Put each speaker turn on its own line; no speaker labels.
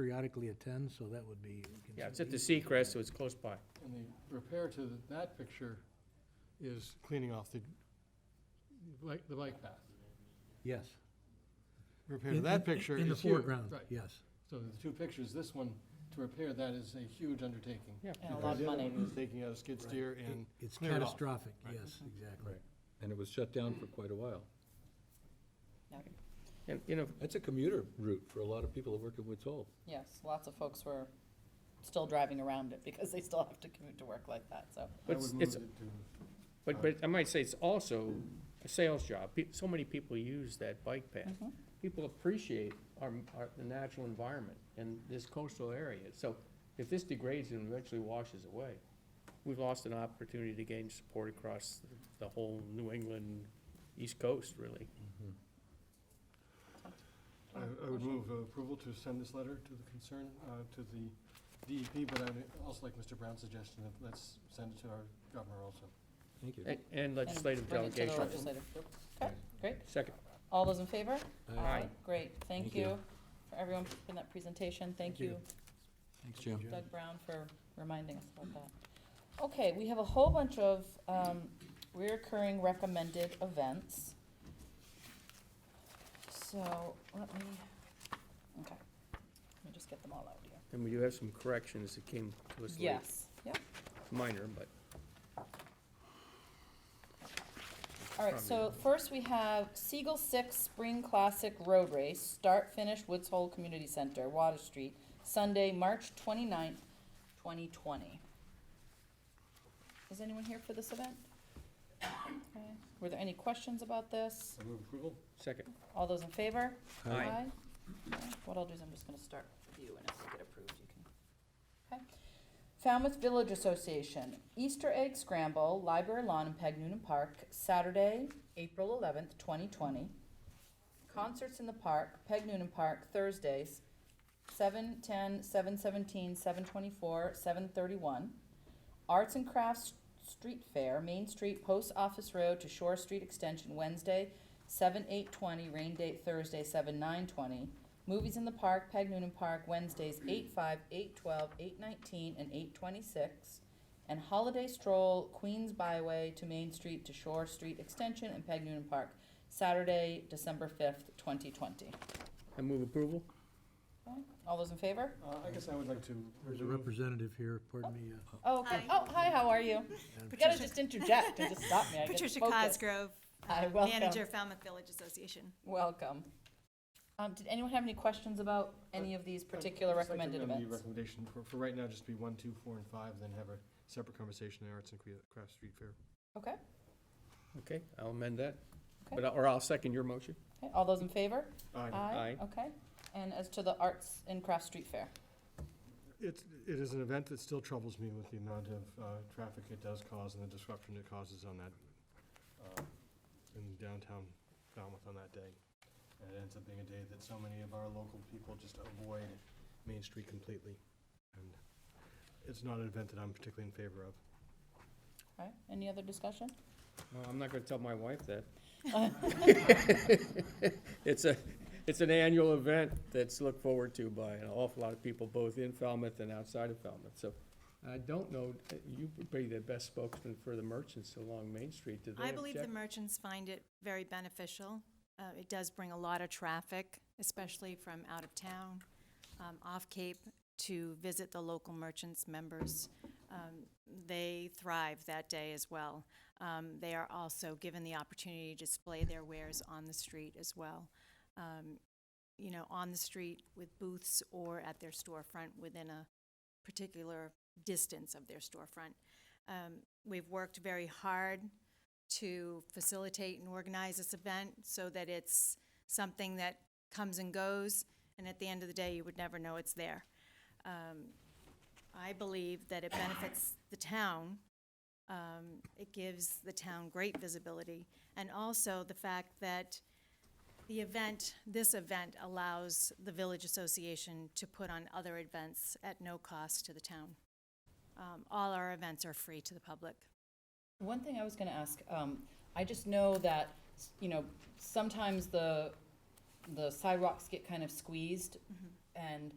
periodically attend, so that would be.
Yeah, it's at the Seacrest, so it's close by.
And the repair to th- that picture is cleaning off the, bike- the bike path.
Yes.
Repair
In-
to
in-
that picture
In the
is huge.
foreground,
Right.
yes.
So the two pictures, this one, to repair that is a huge undertaking.
Yeah.
And a lot
Because
of
the other
money.
one is Taking out a skid steer
It-
and
It's
clear it off.
catastrophic, yes, exactly.
And it was shut down for quite a while.
Okay.
And, you know,
That's a commuter route for a lot of people that work in Woods Hole.
Yes, lots of folks were still driving around it because they still have to commute to work like that, so.
I
But
would
it's-
move it
it's-
to,
but, but I might say it's also a sales job. Pe- So many people use that bike path.
Mm-hmm.
People appreciate our, our, the natural environment and this coastal area. So if this degrades and eventually washes away, we've lost an opportunity to gain support across the whole New England, East Coast, really.
I I would move uh, approval to send this letter to the concern, uh, to the DEP, but I'd also like Mr. Brown's suggestion of let's send it to our governor also.
Thank you.
A- And
and
legislative
bring it to the
delegation.
legislative. Okay, great.
Second.
All those in favor?
Aye.
Great, thank
Thank you.
you for everyone for that presentation. Thank you,
Thanks, Jim.
Doug Brown, for reminding us about that. Okay, we have a whole bunch of um, reoccurring recommended events. So let me, okay, let me just get them all out here.
And we do have some corrections that came to us late,
Yes, yep.
minor, but.
All right, so first we have Siegel Six Spring Classic Road Race, start, finish, Woods Hole Community Center, Water Street, Sunday, March twenty-ninth, twenty twenty. Is anyone here for this event? Okay. Were there any questions about this?
I move approval?
Second.
All those in favor?
Aye.
Okay, What I'll do is I'm just gonna start with you, and if they get approved, you can. Okay. Falmouth Village Association, Easter Egg Scramble, Library Lawn in Peg Noonan Park, Saturday, April eleventh, twenty twenty. Concerts in the park, Peg Noonan Park, Thursdays, 7, 10, 7, 17, 7, 24, 7, 31. Arts and Crafts Street Fair, Main Street, Post Office Road to Shore Street Extension, Wednesday, 7, 8, 20, rain date Thursday, 7, 9, 20. Movies in the Park, Peg Noonan Park, Wednesdays, 8, 5, 8, 12, 8, 19, and 8, 26. And Holiday Stroll, Queens Byway to Main Street to Shore Street Extension and Peg Noonan Park, Saturday, December 5th, 2020.
I move approval?
Okay, All those in favor?
Uh, I guess I would like to.
There's a
remove-
representative here, pardon me. uh,
Oh, okay.
Hi.
Oh, hi, how are you?
Madam
You gotta
Patricia-
just interject and just stop me. I get
Patricia
focused.
Cosgrove,
Hi,
uh,
welcome.
manager of Falmouth Village Association.
Welcome. Um, did anyone have any questions about any of these particular
I'd just like to
recommended
amend the
events?
Recommendation for, for right now, just be one, two, four, and five, then have a separate conversation in Arts and Crea- Crafts Street Fair.
Okay,
Okay, I'll amend that.
Okay.
But, I- or I'll second your motion.
okay, all those in favor?
Aye.
Aye.
Okay, and as to the Arts and Crafts Street Fair?
It's, it is an event that still troubles me with the amount of, uh, traffic it does cause and the disruption it causes on that, uh, in downtown Falmouth on that day. And it ends up being a day that so many of our local people just avoid Main Street completely. And it's not an event that I'm particularly in favor of.
All right, any other discussion?
Well, I'm not gonna tell my wife that. It's a, it's an annual event that's looked forward to by an awful lot of people, both in Falmouth and outside of Falmouth, so. I don't know, uh, you would be the best spokesman for the merchants along Main Street, do they
I believe the
object?
merchants find it very beneficial. Uh, It does bring a lot of traffic, especially from out of town, um, off Cape, to visit the local merchants' members. Um, They thrive that day as well. Um, They are also given the opportunity to display their wares on the street as well. Um, You know, on the street with booths or at their storefront within a particular distance of their storefront. Um, We've worked very hard to facilitate and organize this event so that it's something that comes and goes, and at the end of the day, you would never know it's there. Um, I believe that it benefits the town. Um, It gives the town great visibility, and also the fact that the event, this event allows the Village Association to put on other events at no cost to the town. Um, All our events are free to the public.
One thing I was gonna ask, um, I just know that, s- you know, sometimes the, the sidewalks get kind of squeezed, and